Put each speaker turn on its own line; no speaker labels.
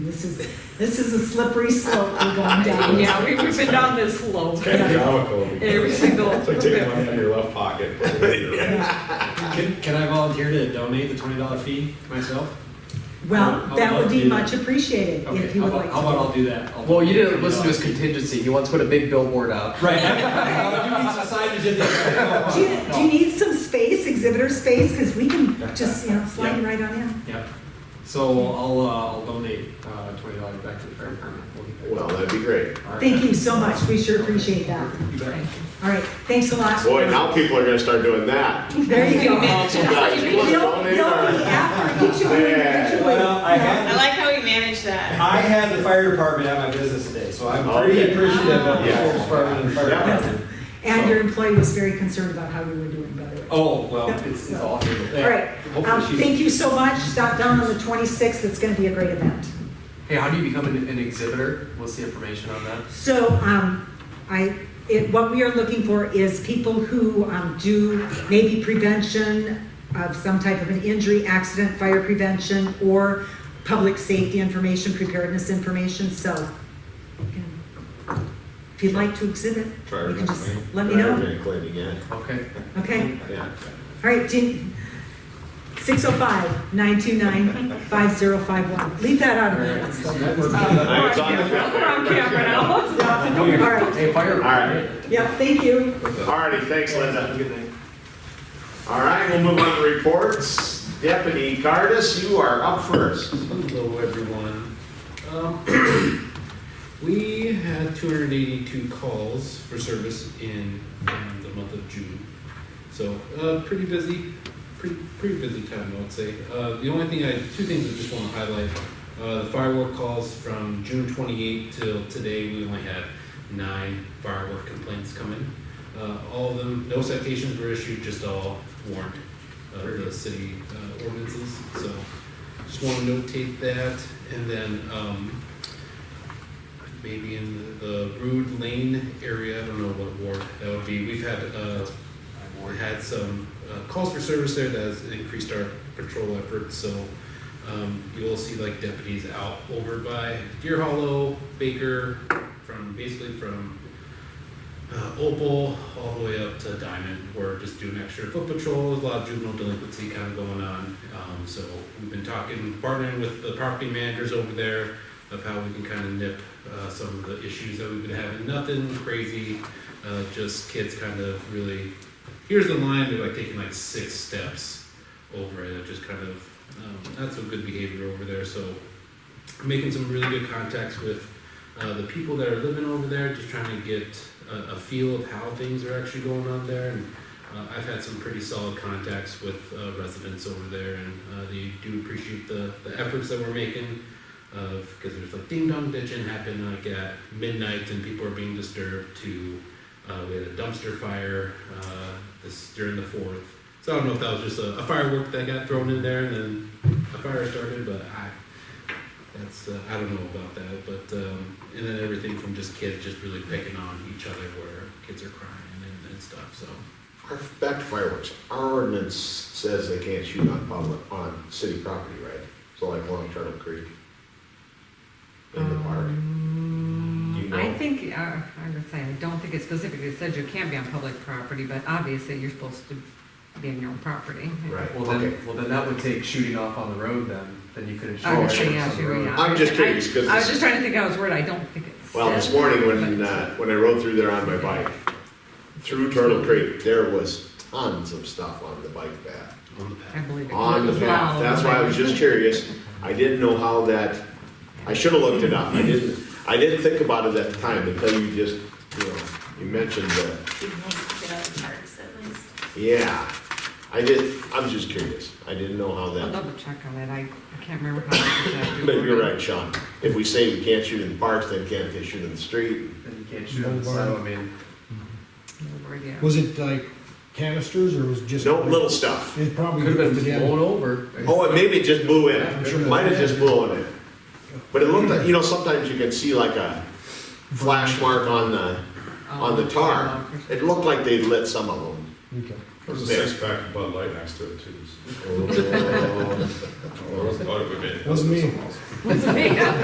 This is, this is a slippery slope we're going down.
Yeah, we- we've been down this slope
Categorical.
every single.
It's like taking money out of your left pocket. put it in your right.
Yeah.
Can, can I volunteer to donate the twenty dollar fee myself?
Well,
How
that
about
would be
you?
much appreciated
Okay,
if you
how
would
about,
like
how about
to.
I'll do that? I'll
Well, you
donate
didn't listen to his
$20.
contingency. He wants to put a big billboard out.
Right. You need society to do that.
Do you, do you need some space, exhibitor space? Because we can just, you know, slide
Yeah.
right on in.
Yep. So I'll, uh, I'll donate, uh, twenty dollars back to the fire department. We'll get that.
Well, that'd be great.
All right.
Thank you so much. We sure appreciate that.
You bet.
All right, thanks a lot.
Boy, now people are gonna start doing that.
There you go.
You guys, you
You'll,
wanna
you'll
donate
be
our-
after, get you a
Yeah.
individual.
Well, I had-
I like how we manage that.
I had the fire department at my business today, so I'm pretty
Okay.
appreciative of the
Yeah.
fire department and the fire
Yeah.
department.
And your employee was very concerned about how you were doing, by the way.
Oh, well, it's, it's all handled.
All right, um,
Hopefully she's,
thank you so much. Stop down on the 26th. It's going to be a great event.
Hey, how do you become an, an exhibitor? What's the information on that?
So, um, I, it, what we are looking for is people who, um, do maybe prevention of some type of an injury, accident, fire prevention, or public safety information, preparedness information, so. you know, If you'd like to exhibit, you can just let me know,
Fire cleaning, yeah,
Okay.
okay?
yeah.
All right, Jean, 605-929-5051. Leave that out of there. That's the-
We're on
It's on the-
camera. We're on camera now.
All right,
Hey, fire.
All right.
yeah, thank you.
Alrighty, thanks, Linda.
good night.
All right, we'll move on to reports. Deputy Cardis, you are up first.
Hello, everyone. Um, We had 282 calls for service in um, the month of June. So, uh, pretty busy, pretty, pretty busy time, I would say. Uh, The only thing I, two things I just want to highlight. Uh, The firework calls from June 28 till today, we only had nine firework complaints come in. Uh, All of them, no citations were issued, just all warned, uh, the city uh, ordinances, so. Just want to notate that, and then, um, maybe in the- the Rude Lane area, I don't know what ward that would be, we've had, uh, we had some uh, calls for service there that has increased our patrol efforts, so, um, you will see like deputies out over by Deer Hollow, Baker, from, basically from, uh, Opal, all the way up to Diamond, we're just doing extra foot patrols, a lot of juvenile delinquency kind of going on. Um, so we've been talking, partnering with the property managers over there of how we can kind of nip, uh, some of the issues that we've been having, nothing crazy, uh, just kids kind of really, here's the line, they're like taking like six steps over it, just kind of, um, not so good behavior over there, so making some really good contacts with uh, the people that are living over there, just trying to get a, a feel of how things are actually going on there. And uh, I've had some pretty solid contacts with uh, residents over there, and uh, they do appreciate the, the efforts that we're making. Of because there's like ding dong ditching happened like at midnight, and people are being disturbed. To uh, we had a dumpster fire uh, this during the fourth. So I don't know if that was just a, a firework that got thrown in there and then a fire started, but I that's uh, I don't know about that, but um, and then everything from just kids just really picking on each other where kids are crying and, and stuff. So
Back to fireworks. Our ordinance says they can't shoot on public, on city property, right? So like along Turtle Creek. In the park. You
I
know,
think, uh, I'm gonna say, I don't think it specifically says you can't be on public property, but obviously you're supposed to be on your own property.
right,
Well then,
okay.
well then, that would take shooting off on the road. Then, then you couldn't shoot.
I
fireworks
was saying, Oh, yeah,
on the
sure,
road.
yeah.
Oh, I'm just
I- I
curious,
was
because,
just trying to think out his word, I don't think it's.
well, this morning when, uh, when I rode through there on my bike, through Turtle Creek, there was tons of stuff on the bike path.
on the path.
I believe it.
uh, on the path.
Wow.
That's why I was just curious. I didn't know how that, I should have looked it up. I didn't, I didn't think about it at the time until you just, you know, you mentioned the, yeah. I did, I'm just curious. I didn't know how
I'll
that,
double check on it, I, I can't remember how much that.
but you're right, Sean. If we say we can't shoot in parks, then can't they shoot in the street?
Then you can't shoot on the side. I mean,
Was it like canisters or was it just?
No, little stuff.
It probably.
could have been just blown over.
Oh, and maybe it just blew in. Might have just blown in. But it looked like, you know, sometimes you can see like a flash mark on the, on the tar. It looked like they lit some of them.
Okay.
There's a six pack of Bud Light next to it too. Oh, so-
Oh.
I always thought it would be-
Wasn't me.
Yeah.